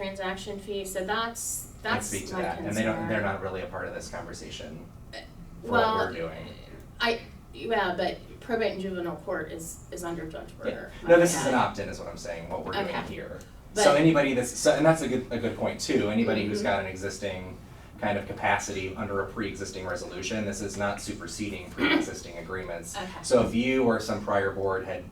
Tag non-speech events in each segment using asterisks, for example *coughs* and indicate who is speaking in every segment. Speaker 1: transaction fee, so that's,
Speaker 2: can
Speaker 1: that's my
Speaker 2: speak to
Speaker 1: concern.
Speaker 2: that, and they don't, they're not really a part of this conversation for what
Speaker 1: Well, eh,
Speaker 2: we're doing.
Speaker 1: I, yeah, but probate and juvenile court is, is under Judge Berger.
Speaker 2: No, this is an
Speaker 1: Okay.
Speaker 2: opt-in is what I'm saying, what we're doing
Speaker 1: Okay.
Speaker 2: here. So
Speaker 1: But- Mm-hmm.
Speaker 2: anybody that's, so, and that's a good, a good point too, anybody who's got an existing kind of capacity under a pre-existing resolution, this is not superseding
Speaker 1: *coughs*
Speaker 2: pre-existing agreements.
Speaker 1: Okay.
Speaker 2: So if you or some prior board had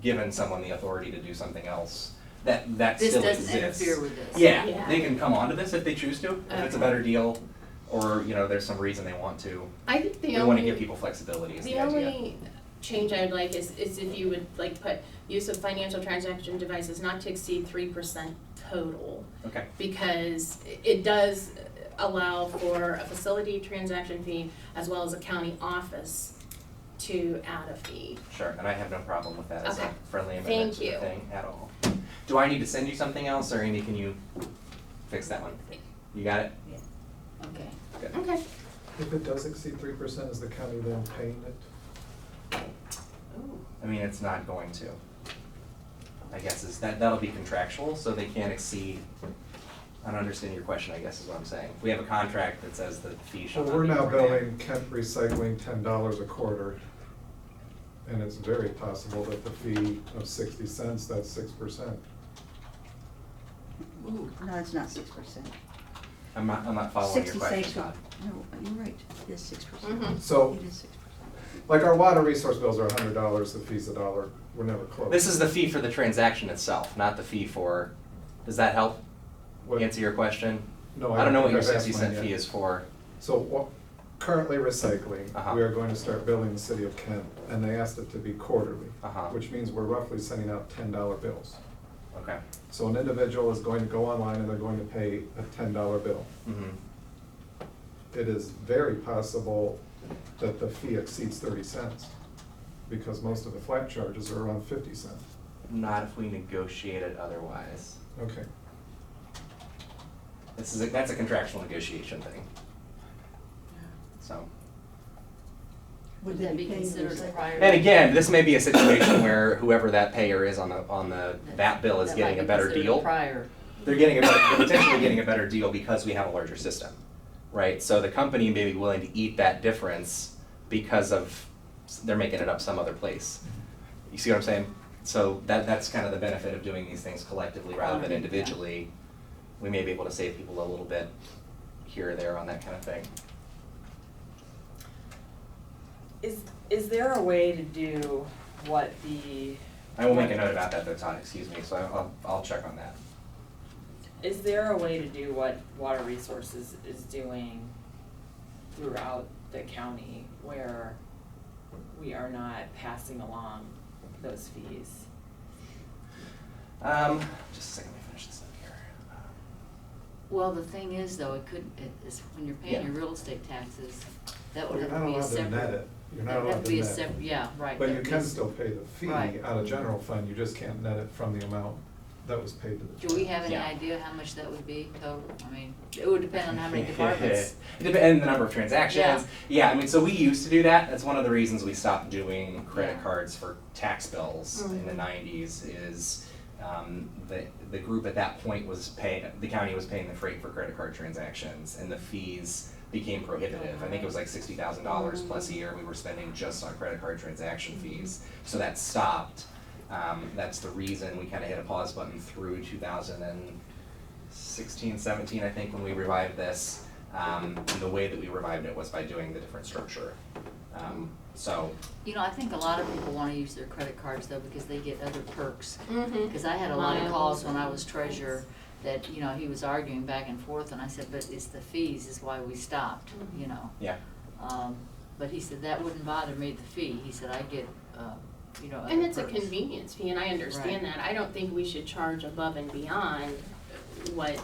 Speaker 2: given someone the authority to do something else, that, that
Speaker 3: This
Speaker 2: still exists.
Speaker 3: doesn't interfere with this.
Speaker 2: Yeah,
Speaker 1: Yeah.
Speaker 2: they can come onto this if they choose to, if it's
Speaker 1: Okay.
Speaker 2: a better deal, or, you know, there's some reason they want to.
Speaker 1: I think the
Speaker 2: We
Speaker 1: only.
Speaker 2: wanna give people flexibility is the
Speaker 1: The
Speaker 2: idea.
Speaker 1: only change I would like is, is if you would like put use of financial transaction devices not to exceed three percent total.
Speaker 2: Okay,
Speaker 1: Because it does allow for a facility transaction fee as well as a county office to add a fee.
Speaker 2: sure, and I have no problem with that as a
Speaker 1: Okay.
Speaker 2: friendly amendment
Speaker 1: Thank
Speaker 2: to the
Speaker 1: you.
Speaker 2: thing at all. Do I need to send you something else, or Amy, can you fix that one? You got it?
Speaker 3: Okay.
Speaker 2: Good.
Speaker 1: Okay.
Speaker 4: If it does exceed three percent, is the county then paying it?
Speaker 2: I mean, it's not going to. I guess is, that, that'll be contractual, so they can't exceed, I don't understand your question, I guess is what I'm saying. We have a contract that says the fee shall
Speaker 4: Well,
Speaker 2: not
Speaker 4: we're
Speaker 2: be
Speaker 4: now
Speaker 2: more than-
Speaker 4: billing Kent Recycling ten dollars a quarter. And it's very possible that the fee of sixty cents, that's six percent.
Speaker 5: Ooh, no, it's not six percent.
Speaker 2: I'm not, I'm not following your question, Todd.
Speaker 5: No, you're right, it is six
Speaker 1: Mhm.
Speaker 3: Mm-hmm.
Speaker 5: percent.
Speaker 4: So-
Speaker 5: It is six percent.
Speaker 4: Like our water resource bills are a hundred dollars, the fee's a dollar, we're never close.
Speaker 2: This is the fee for the transaction itself, not the fee for, does that help
Speaker 4: What-
Speaker 2: answer your question?
Speaker 4: No,
Speaker 2: I don't
Speaker 4: I don't
Speaker 2: know what
Speaker 4: think
Speaker 2: your
Speaker 4: I've asked
Speaker 2: sixty cent
Speaker 4: mine
Speaker 2: fee
Speaker 4: yet.
Speaker 2: is for.
Speaker 4: So what, currently recycling,
Speaker 2: Uh-huh.
Speaker 4: we are going to start billing the city of Kent, and they asked it to be quarterly.
Speaker 2: Uh-huh.
Speaker 4: Which means we're roughly sending out ten dollar bills.
Speaker 2: Okay.
Speaker 4: So an individual is going to go online and they're going to pay a ten dollar bill.
Speaker 2: Mhm.
Speaker 4: It is very possible that the fee exceeds thirty cents, because most of the flat charges are around fifty cents.
Speaker 2: Not if we negotiate it otherwise.
Speaker 4: Okay,
Speaker 2: This is, a- that's a contractual negotiation thing, so.
Speaker 3: Would that be
Speaker 5: paying the
Speaker 3: considered a
Speaker 5: recycling?
Speaker 3: prior?
Speaker 2: And again, this may be a situation where whoever that payer is on the, on the, that bill is
Speaker 3: That
Speaker 2: getting
Speaker 3: might
Speaker 2: a
Speaker 3: be
Speaker 2: better
Speaker 3: considered
Speaker 2: deal.
Speaker 3: Prior.
Speaker 2: They're getting a better, they're potentially getting a better deal because we have a larger system, right? So the company may be willing to eat that difference because of, they're making it up some other place. You see what I'm saying? So that, that's kind of the benefit of doing these things collectively rather than
Speaker 3: Right, yeah.
Speaker 2: individually. We may be able to save people a little bit here or there on that kind of thing.
Speaker 6: Is, is there a way to do what the,
Speaker 2: I will make a note about that though, Todd, excuse me, so I- I'll, I'll check on that.
Speaker 6: is there a way to do what Water Resources is doing throughout the county where we are not passing along those fees?
Speaker 2: Um, just a second, let me finish this up here.
Speaker 3: Well, the thing is though, it could, it is, when you're paying
Speaker 2: Yeah.
Speaker 3: your real estate taxes, that would
Speaker 4: you're
Speaker 3: have
Speaker 4: not
Speaker 3: to be a
Speaker 4: allowed to
Speaker 3: separate.
Speaker 4: net it, you're not
Speaker 3: that'd have
Speaker 4: allowed to
Speaker 3: be a
Speaker 4: net
Speaker 3: sep-
Speaker 4: it.
Speaker 3: yeah, right.
Speaker 4: But
Speaker 3: that
Speaker 4: you
Speaker 3: would be
Speaker 4: can
Speaker 3: a-
Speaker 4: still pay the fee
Speaker 3: Right.
Speaker 4: out of general fund, you just can't net it from the amount that was paid to the.
Speaker 3: Do we have any
Speaker 2: Yeah.
Speaker 3: idea how much that would be total? I mean, it would depend on how
Speaker 2: *laughs*
Speaker 3: many departments.
Speaker 2: It dep- And the number of transactions. Yeah, I mean, so we used to do that. That's one of the reasons we stopped doing credit
Speaker 3: Yeah.
Speaker 2: cards for tax bills in the
Speaker 1: Mhm.
Speaker 2: nineties is um, the, the group at that point was paying, the county was paying the freight for credit card transactions and the fees became prohibitive. I think it was like sixty thousand dollars plus a year we were spending just on credit card transaction fees. So that stopped. Um, that's the reason we kind of hit a pause button through two thousand and 16, 17, I think, when we revived this. Um, and the way that we revived it was by doing the different structure. Um, so,
Speaker 3: You know, I think a lot of people wanna use their credit cards though, because they get other perks.
Speaker 1: Mm-hmm.
Speaker 3: Because I had a lot of
Speaker 1: Miles.
Speaker 3: calls when I was treasurer that, you know, he was arguing back and forth and I said, but it's the fees is why we stopped,
Speaker 1: Mm-hmm.
Speaker 3: you know?
Speaker 2: yeah.
Speaker 3: Um, but he said, that wouldn't bother me, the fee. He said, I get, uh, you know, other
Speaker 1: And it's a
Speaker 3: perks."
Speaker 1: convenience fee, and I understand that. I don't think we should charge above and beyond what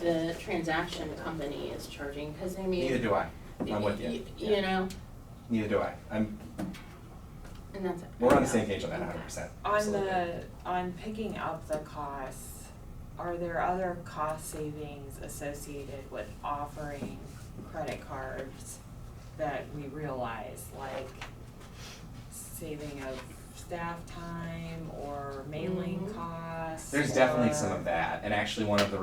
Speaker 1: the transaction company is charging, because I mean.
Speaker 2: Neither do I. I'm with
Speaker 1: y-
Speaker 2: you.
Speaker 1: y- You know,
Speaker 2: Neither do I. I'm,
Speaker 1: and that's it.
Speaker 2: we're on the same page on that 100%.
Speaker 6: On
Speaker 2: absolutely.
Speaker 6: the, on picking up the costs, are there other cost savings associated with offering credit cards that we realize, like saving of staff time or mailing
Speaker 1: Mhm.
Speaker 6: costs?
Speaker 2: There's definitely
Speaker 6: or-
Speaker 2: some of that. And actually, one of the